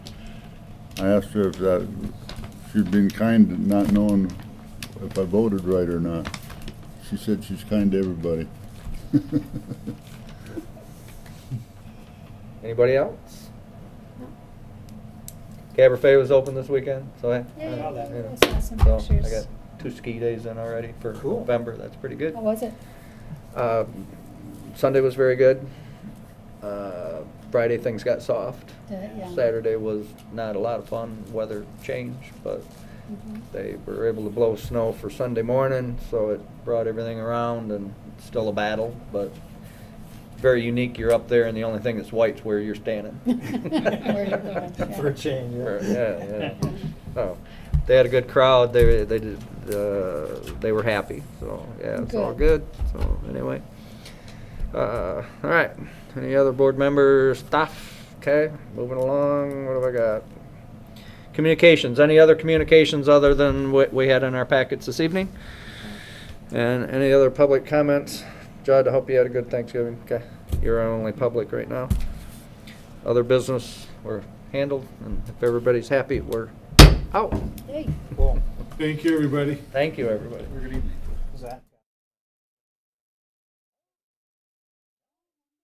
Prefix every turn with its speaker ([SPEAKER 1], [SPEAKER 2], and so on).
[SPEAKER 1] I asked her if that, she'd been kind to not knowing if I voted right or not. She said she's kind to everybody.
[SPEAKER 2] Anybody else? Caber Fay was open this weekend, so I.
[SPEAKER 3] Yeah, yeah, yeah.
[SPEAKER 2] you know,
[SPEAKER 3] I saw some
[SPEAKER 2] so I
[SPEAKER 3] pictures.
[SPEAKER 2] got two ski days in already for
[SPEAKER 4] Cool.
[SPEAKER 2] November, that's pretty good.
[SPEAKER 3] How was it?
[SPEAKER 2] Uh, Sunday was very good. Uh, Friday, things got soft.
[SPEAKER 3] Yeah, yeah.
[SPEAKER 2] Saturday was not a lot of fun, weather changed, but
[SPEAKER 3] Mhm.
[SPEAKER 2] they were able to blow snow for Sunday morning, so it brought everything around and it's still a battle, but very unique. You're up there and the only thing that's white's where you're standing.
[SPEAKER 3] Where you're going, yeah.
[SPEAKER 4] For a change, yeah.
[SPEAKER 2] For- Yeah, yeah. Oh, they had a good crowd. They, they did, uh, they were happy, so, yeah, it's all
[SPEAKER 3] Good.
[SPEAKER 2] good. So, anyway. Uh, all right. Any other board members, stuff? Okay, moving along. What have I got? Communications. Any other communications other than what we had in our packets this evening? And any other public comments? Judd, I hope you had a good Thanksgiving. Okay, you're our only public right now. Other business were handled, and if everybody's happy, we're out.
[SPEAKER 3] Hey.
[SPEAKER 4] Cool.
[SPEAKER 5] Thank you, everybody.
[SPEAKER 2] Thank you, everybody.
[SPEAKER 4] Is that?